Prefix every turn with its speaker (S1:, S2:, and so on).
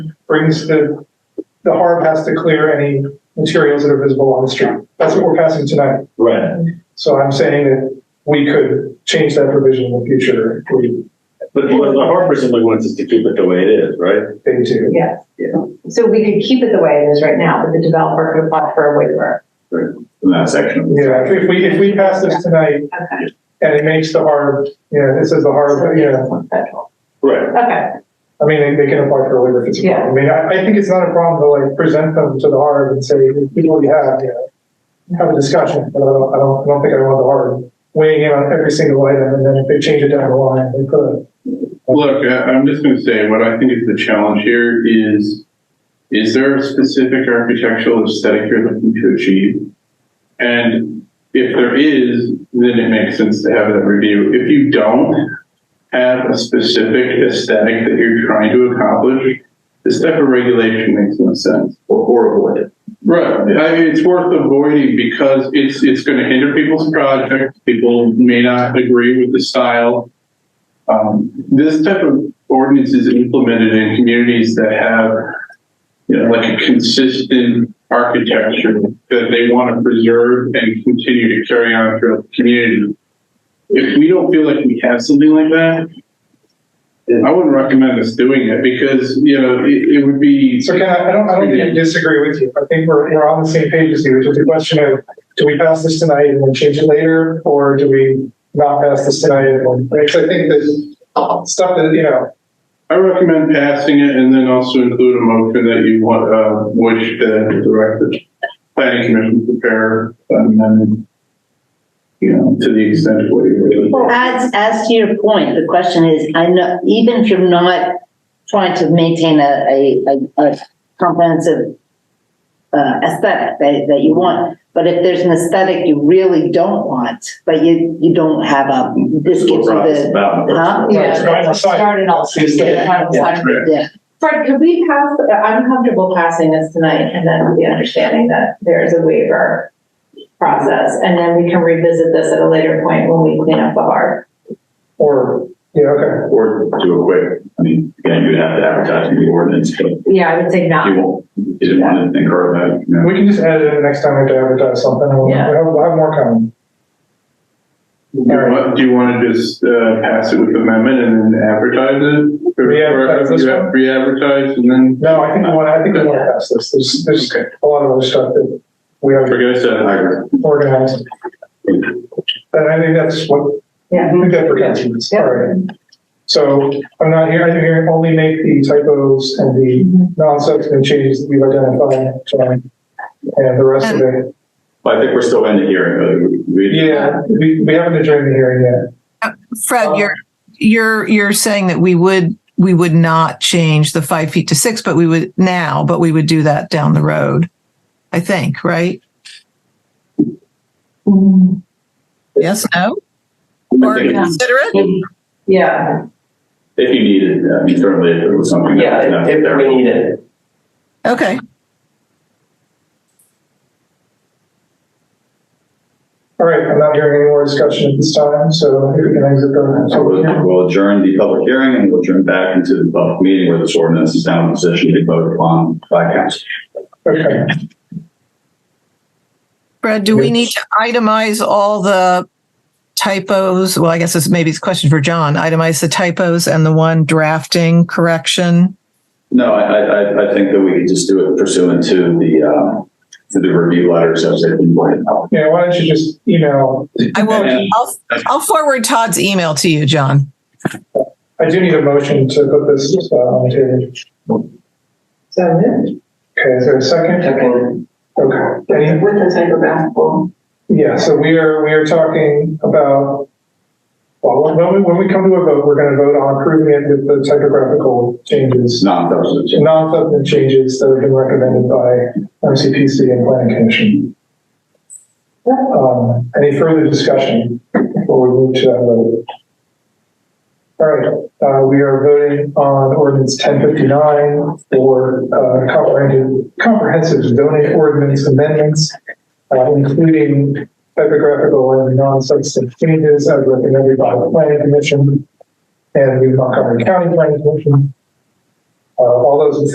S1: brings the, the harm has to clear any materials that are visible on the street. That's what we're passing tonight.
S2: Right,
S1: So I'm saying that we could change that provision in the future if we,
S2: but what the harbor simply wants is to keep it the way it is, right?
S1: they do.
S3: Yeah. So we could keep it the way it is right now, but the developer could apply for a waiver.
S2: In that section.
S1: Yeah, if we, if we pass this tonight
S3: Okay.
S1: and it makes the harm, you know, it says the harm, but, you know,
S3: Federal.
S2: Right,
S3: Okay,
S1: I mean, they, they can apply for a waiver if it's a problem. I mean, I, I think it's not a problem to like present them to the harm and say, we already have, you know, have a discussion, but I don't, I don't, I don't think I want the harm weighing in on every single item and then if they change it down the line, they could.
S4: Look, I- I'm just going to say, what I think is the challenge here is, is there a specific architectural aesthetic you're looking to achieve? And if there is, then it makes sense to have that review. If you don't have a specific aesthetic that you're trying to accomplish, this type of regulation makes no sense.
S2: or avoid it.
S4: Right. I mean, it's worth avoiding because it's, it's going to hinder people's projects. People may not agree with the style. Um, this type of ordinance is implemented in communities that have, you know, like a consistent architecture that they want to preserve and continue to carry on throughout the community. If we don't feel like we have something like that, I wouldn't recommend us doing it because, you know, it, it would be.
S1: So Ken, I I don't, I don't think I disagree with you. I think we're, we're on the same page as you, which is the question of, do we pass this tonight and then change it later? Or do we not pass this tonight and then, because I think that stuff that, you know,
S4: I recommend passing it and then also include a motion that you want, uh, which the director, planning commission prepare and then, you know, to the extent of what you really.
S5: As, as to your point, the question is, I know, even if you're not trying to maintain a, a, a- a comprehensive uh, aesthetic that, that you want, but if there's an aesthetic you really don't want, but you, you don't have a, this
S2: This is what
S5: gives you
S2: brought this
S5: the,
S2: about.
S5: huh?
S1: Yeah. Yeah.
S3: Started all.
S5: Yeah,
S3: Fred, could we pass, I'm comfortable passing this tonight and then with the understanding that there is a waiver process. And then we can revisit this at a later point when we clean up the harbor.
S1: or, yeah, okay.
S2: Or do it quick, I mean, again, you'd have to advertise in the ordinance, but you
S3: Yeah, I would say not.
S2: won't, you didn't want to incur that, you know.
S1: We can just add it in next time we have to advertise something. We'll, we'll
S3: Yeah.
S1: have, we'll have more coming.
S4: What, do you want to just, uh, pass it with amendment and then advertise it? Or- or
S1: Re-advertise this
S4: re-
S1: one?
S4: Re-advertise and then,
S1: No, I think we want, I think we want to pass this. There's, there's a lot of other stuff that we have
S4: forget I said.
S2: I agree.
S1: organized. And I think that's what
S3: Yeah.
S1: We've got protections, all right. So I'm not here, I'm here to only make the typos and the non-substantive changes that we've identified tonight. And the rest of it,
S2: But I think we're still in the hearing, but we, we-
S1: yeah, we, we haven't adjourned the hearing yet.
S6: Fred, you're, you're, you're saying that we would, we would not change the five feet to six, but we would now, but we would do that down the road. I think, right? Yes, no? Or
S2: I think
S6: consider it?
S3: Yeah.
S2: if you needed, I mean, certainly if it was something that was
S7: Yeah,
S2: not
S7: if
S2: there.
S7: we need it.
S6: Okay.
S1: All right, I'm not hearing any more discussion at this time, so if we can exit the.
S2: So we'll- we'll adjourn the public hearing and we'll adjourn back into the public meeting where this ordinance is now in position to be voted upon by council.
S1: Okay,
S6: Fred, do we need to itemize all the typos? Well, I guess this maybe it's a question for John. Itemize the typos and the one drafting correction.
S2: No, I, I, I- I think that we could just do it pursuant to the, um, to the review letters as they've been pointed out.
S1: yeah, why don't you just email,
S6: I will,
S2: And-
S6: I'll, I'll forward Todd's email to you, John.
S1: I do need a motion to put this uh, on the table.
S3: So,
S1: Okay, is there a second?
S7: Second,
S1: Okay, any,
S3: the type of basketball.
S1: Yeah, so we are, we are talking about, well, when- when we, when we come to a vote, we're gonna vote on approving it with the typographical
S2: It's
S1: changes,
S2: non-substantive.
S1: non-substantive changes that have been recommended by MCPC and Planning Commission. Um, any further discussion before we move to that vote? All right, uh, we are voting on ordinance ten fifty-nine for, uh, comprehensive, comprehensive zoning ordinance amendments, uh, including typographical and non-substantive changes as recommended by the planning commission and the Montgomery County Planning Commission. Uh, all those in